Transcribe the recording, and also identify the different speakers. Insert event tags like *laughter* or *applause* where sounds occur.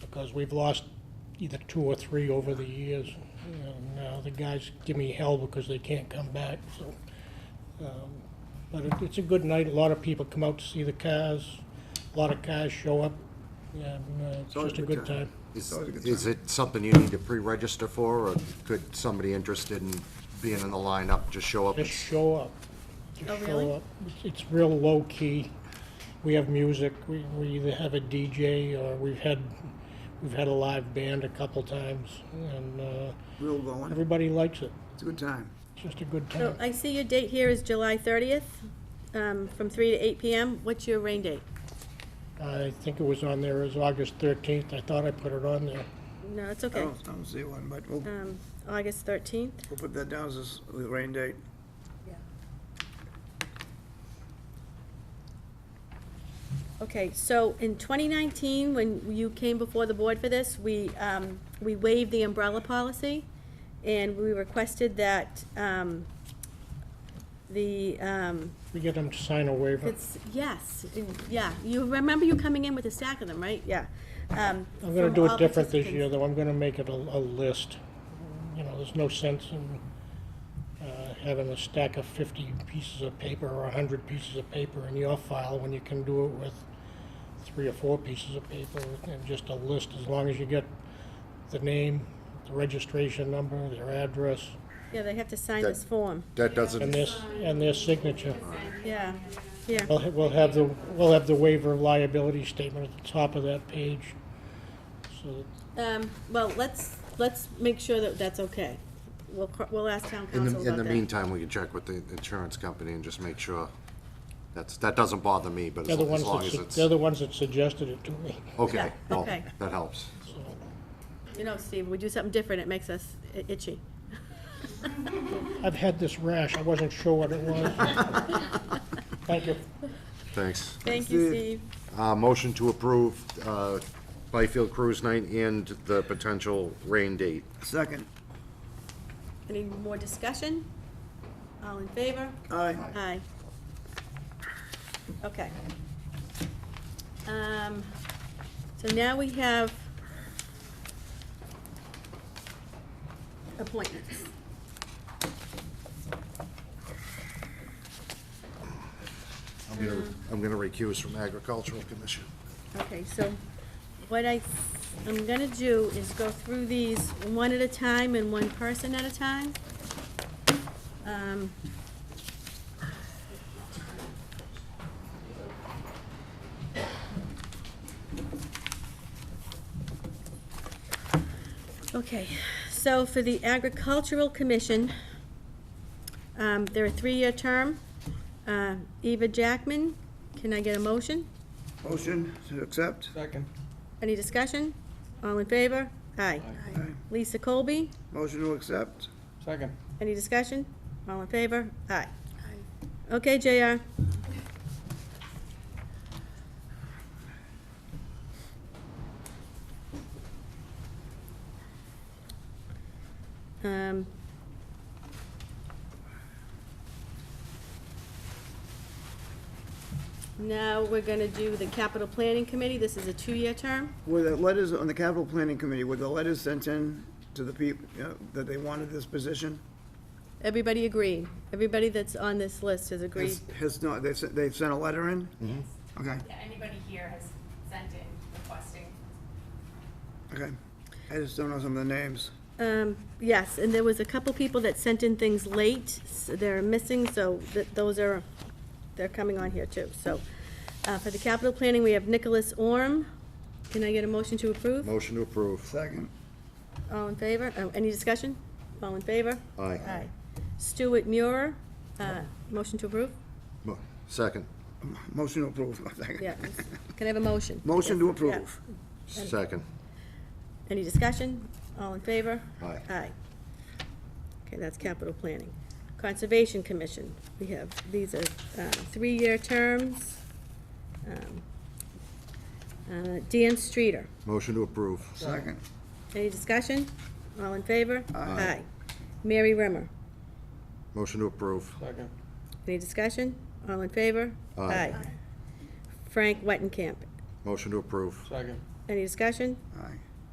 Speaker 1: because we've lost either two or three over the years. And now the guys give me hell because they can't come back, so. um, But it, it's a good night, a lot of people come out to see the cars, a lot of cars show up, and uh, it's
Speaker 2: always
Speaker 1: just a good time.
Speaker 3: Is,
Speaker 2: Always a good
Speaker 3: is it something you need to pre-register for, or could somebody interested in being in the lineup just show up?
Speaker 1: Just show up. Just
Speaker 4: Oh,
Speaker 1: show
Speaker 4: really?
Speaker 1: up. It's- It's real low-key. We have music, we, we either have a DJ, or we've had, we've had a live band a couple times, and, uh,
Speaker 2: Real going.
Speaker 1: everybody likes it.
Speaker 2: It's a good time.
Speaker 1: It's just a good
Speaker 4: So
Speaker 1: time.
Speaker 4: I see your date here is July 30th, um, from 3 to 8 PM. What's your rain date?
Speaker 1: I think it was on there as August thirteenth. I thought I put it on there.
Speaker 4: No, it's
Speaker 2: I
Speaker 4: okay.
Speaker 2: don't, I Oh, don't see one, but we'll,
Speaker 1: Oh.
Speaker 4: Um, August 13th?
Speaker 2: we'll put that down as the rain date.
Speaker 4: Okay, so in 2019, when you came before the board for this, we, um, we waived the umbrella policy, and we requested that um, the, um,
Speaker 1: We get them to sign a waiver.
Speaker 4: it's, yes, yeah, you remember you coming in with a stack of them, right? Yeah. Um, I'm
Speaker 1: I'm gonna do it different this year, though. I'm gonna make it a, a list. You know, there's no sense in, uh, having a stack of fifty pieces of paper or a hundred pieces of paper in your file when you can do it with three or four pieces of paper and just a list, as long as you get the name, the registration number, their address,
Speaker 4: Yeah, they have to sign this form,
Speaker 3: That
Speaker 1: and
Speaker 3: doesn't,
Speaker 1: their, s- and their signature.
Speaker 4: yeah, yeah.
Speaker 1: We'll, ha- we'll have the, we'll have the waiver of liability statement at the top of that page. So,
Speaker 4: Um, Well, let's, let's make sure that that's okay. We'll, cr- we'll ask town
Speaker 3: in
Speaker 4: council
Speaker 3: the, in the
Speaker 4: about that.
Speaker 3: meantime, we can check with the insurance company and just make sure. That's, that doesn't bother me, but
Speaker 1: they're
Speaker 3: as
Speaker 1: the
Speaker 3: long
Speaker 1: ones
Speaker 3: as long
Speaker 1: that,
Speaker 3: as
Speaker 1: su-
Speaker 3: it's,
Speaker 1: they're the ones that suggested it to me,
Speaker 3: okay,
Speaker 4: Yeah,
Speaker 3: well,
Speaker 4: okay.
Speaker 3: that helps.
Speaker 1: so.
Speaker 4: You know, Steve, we do something different, it makes us i- itchy.
Speaker 1: I've had this rash, I wasn't sure what it was.
Speaker 3: *laughs*
Speaker 1: Thank you.
Speaker 3: Thanks.
Speaker 4: Thank you,
Speaker 2: Steve.
Speaker 4: Steve.
Speaker 3: Uh, motion to approve, uh, Byfield Cruise Night and the potential rain date.
Speaker 2: Second.
Speaker 4: Any more discussion? All in favor?
Speaker 2: Aye.
Speaker 4: Aye. Okay. Um, so now we have appointments.
Speaker 3: I'm gonna, I'm gonna recuse from agricultural commission.
Speaker 4: Okay, so what I, I'm gonna do is go through these one at a time and one person at a time. Um, Okay, so for the Agricultural Commission, um, they're a three-year term. Uh, Eva Jackman, can I get a motion?
Speaker 2: Motion to accept.
Speaker 5: Second.
Speaker 4: Any discussion? All in favor? Aye.
Speaker 2: Aye.
Speaker 4: Lisa Colby,
Speaker 2: Motion to accept.
Speaker 5: Second.
Speaker 4: any discussion? All in favor? Aye. Okay, JR. Um, Now, we're gonna do the capital planning committee. This is a two-year term.
Speaker 2: Were the letters on the capital planning committee, were the letters sent in to the people, that they wanted this position?
Speaker 4: Everybody agreed. Everybody that's on this list has agreed.
Speaker 2: Has- Has not, they've, sent- they've sent a letter in? Okay,
Speaker 6: Yeah, anybody here has sent in requesting.
Speaker 2: okay. I just don't know some of the names.
Speaker 4: Um, yes, and there was a couple people that sent in things late. s- They're missing, so th- those are, they're coming on here too. So, uh, for the capital planning, we have Nicholas Orm. Can I get a motion to approve?
Speaker 3: Motion to approve.
Speaker 2: Second.
Speaker 4: All in favor? Oh, any discussion? All in favor?
Speaker 3: Aye.
Speaker 4: Aye. Stuart Muir, uh, motion to approve?
Speaker 3: Mo- Second,
Speaker 2: Motion to approve. *laughs*
Speaker 4: Yeah. Can I have a motion?
Speaker 2: Motion to
Speaker 4: Yeah.
Speaker 2: approve.
Speaker 3: second.
Speaker 4: Any discussion? All in favor?
Speaker 3: Aye.
Speaker 4: Aye. Okay, that's capital planning. Conservation Commission, we have, these are uh, three-year terms. Um, uh, Dan Streeter,
Speaker 3: Motion to approve.
Speaker 2: Second.
Speaker 4: any discussion? All in favor?
Speaker 2: Aye.
Speaker 4: Mary Rimmer,
Speaker 3: Motion to approve.
Speaker 5: Second.
Speaker 4: any discussion? All in favor?
Speaker 3: Aye.
Speaker 4: Frank Wetenkamp,
Speaker 3: Motion to approve.
Speaker 5: Second.
Speaker 4: any discussion?
Speaker 2: Aye.